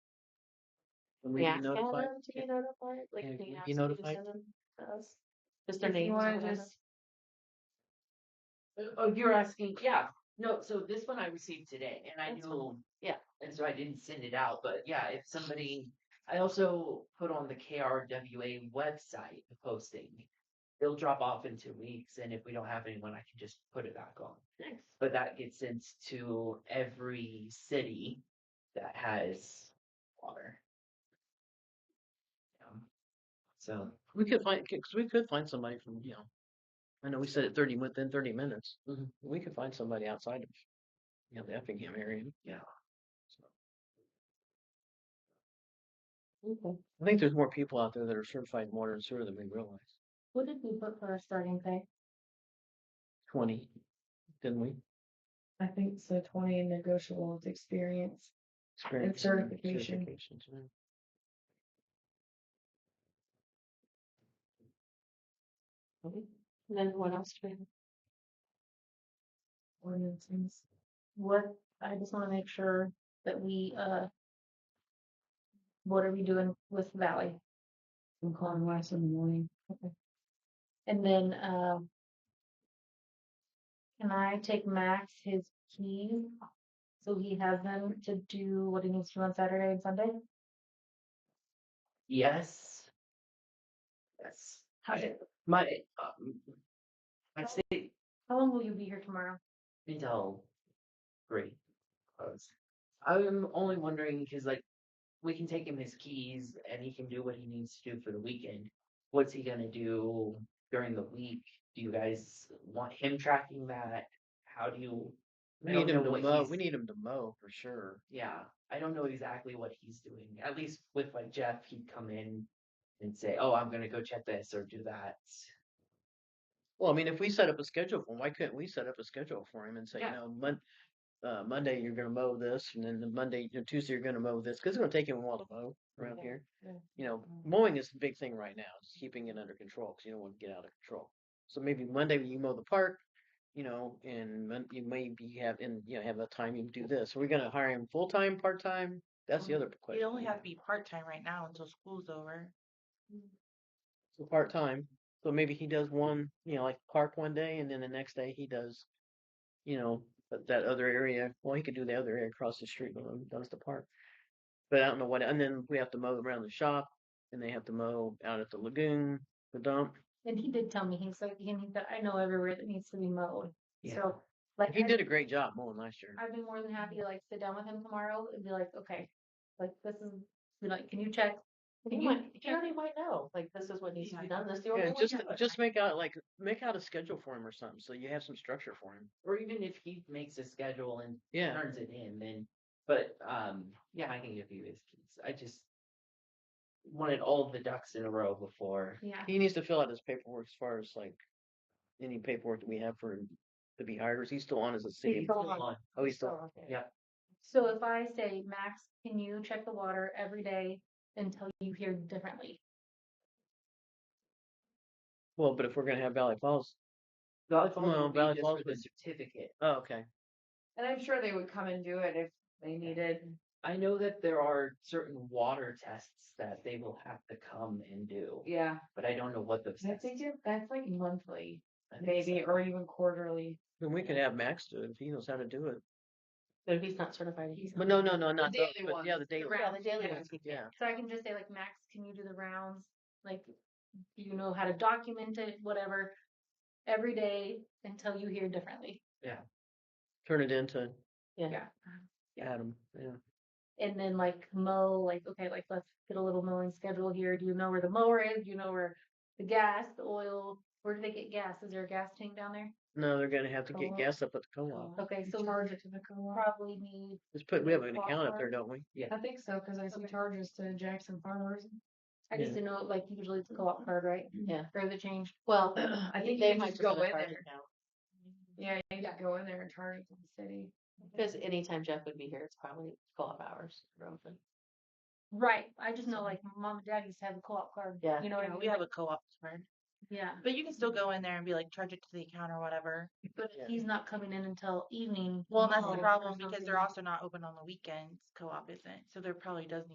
When We we be ask all notified? them to be notified, like, Yeah, can you we'd ask be you to notified. send them to us? Just their If you names. or wanna whatever. just- Oh, you're asking, yeah, no, so this one I received today and I That's knew. Yeah. And so I didn't send it out, but yeah, if somebody, I also put on the KRWA website the posting. It'll drop off in two weeks and if we don't have anyone, I can just put it back on. Thanks. But that gets sent to every city that has water. Yeah. So. We could find, because we could find somebody from, you know, I know we said it thirty, within thirty minutes. Mm-hmm. We could find somebody outside of, you know, the Effingham area. Yeah. So. I think there's more people out there that are certified in water and sewer than we realize. What did we put for our starting pay? Twenty, didn't we? I think so twenty negotiable with experience. Experience certification. certifications, yeah. And then what else do we have? ordinances. What, I just wanna make sure that we, uh, what are we doing with Valley? I'm calling Wes in the morning. Okay. And then, uh, can I take Max his keys? So he has them to do what he needs to on Saturday and Sunday? Yes. Yes. I, my, um, I'd say How long will you be here tomorrow? until three. Close. I'm only wondering because like we can take him his keys and he can do what he needs to do for the weekend. What's he gonna do during the week? Do you guys want him tracking that? How do you? I We don't need him know to what mow, he's- we need him to mow for sure. Yeah, I don't know exactly what he's doing. At least with like Jeff, he'd come in and say, "Oh, I'm gonna go check this or do that." Well, I mean, if we set up a schedule for him, why couldn't we set up a schedule for him and say, you Yeah. know, Mon- uh, Monday you're going to mow this, and then the Monday, you know, Tuesday you're going to mow this, because it's going to take him a while to mow around Yeah, here. yeah. You know, Mhm. mowing is the big thing right now. It's keeping it under control because you don't want to get out of control. So maybe Monday you mow the park, you know, and Mon- you maybe have and you know have the time you do this. Are we going to hire him full time, part time? That's the Um, other question. You only have to be part time right now until school's over. so part time. So maybe he does one, you know, like park one day, and then the next day he does, you know, but that other area. Well, he could do the other area across the street when he does the park. But I don't know what. And then we have to mow around the shop, and they have to mow out at the lagoon, the dump. And he did tell me, he was like, and he said, I know everywhere that needs to be mowed. Yeah. So, like. He I- did a great job mowing last year. I'd be more than happy to like sit down with him tomorrow and be like, okay, like this is be like, can you check? He you- might, he can- already might know, like, this is what needs to be done, this is the order. Yeah, we just have it. just make out like make out a schedule for him or something, so you have some structure for him. Or even if he makes a schedule and Yeah. turns it in, then. But um, yeah, I can give you his keys. I just wanted all the ducks in a row before. Yeah. He needs to fill out his paperwork as far as like any paperwork that we have for him to be hired. Or is he still on as a city? still- Oh, he's still. So, okay. Yeah. So if I say, Max, can you check the water every day until you hear differently? Well, but if we're gonna have Valley Falls, Valley Falls Well, would be Valley just Falls for the would- certificate. oh, okay. And I'm sure they would come and do it if they needed. I know that there are certain water tests that they will have to come and do, Yeah. but I don't know what those. I think tests- it- that's like monthly, I think maybe, or even quarterly. Then we could have Max do it if he knows how to do it. But if he's not certified, he's. But no, no, no, not the, daily but yeah, ones, the daily. round- Yeah, the daily yeah, ones he Yeah, So I can just say like, Max, can you do the rounds? Like, do you know how to document it, whatever? Every day until you hear differently. turn it into Yeah, Yeah. Adam, yeah. And then like mow, like, okay, like let's get a little mowing schedule here. Do you know where the mower is? Do you know where the gas, the oil? Where do they get gas? Is there a gas tank down there? No, they're gonna have to get Co-op. gas up at the co-op. Okay, so we're Charge it to the co-op. probably need Just put, we have an Co-op account up there, farm. don't we? I think so, because I see Okay. charges to Jackson Farmers. I Yeah. just didn't know, like, usually it's a co-op card, right? yeah. Or is it changed? Well, I I think think you they can might just just go go in in there. there now. Mm-hmm. Yeah, you just go in there and charge it to the city. Because anytime Jeff would be here, it's probably twelve hours. we're open. Right, I just know like mom and dad used to have a co-op card. Yeah. You know what I Yeah, mean? we have a co op card. Yeah, But you can still go in there and be like, charge it to the account or whatever. but Yeah. if he's not coming in until evening. Well, that's oh, the or problem because they're something. also not open on the weekends. Co op isn't. So there probably does need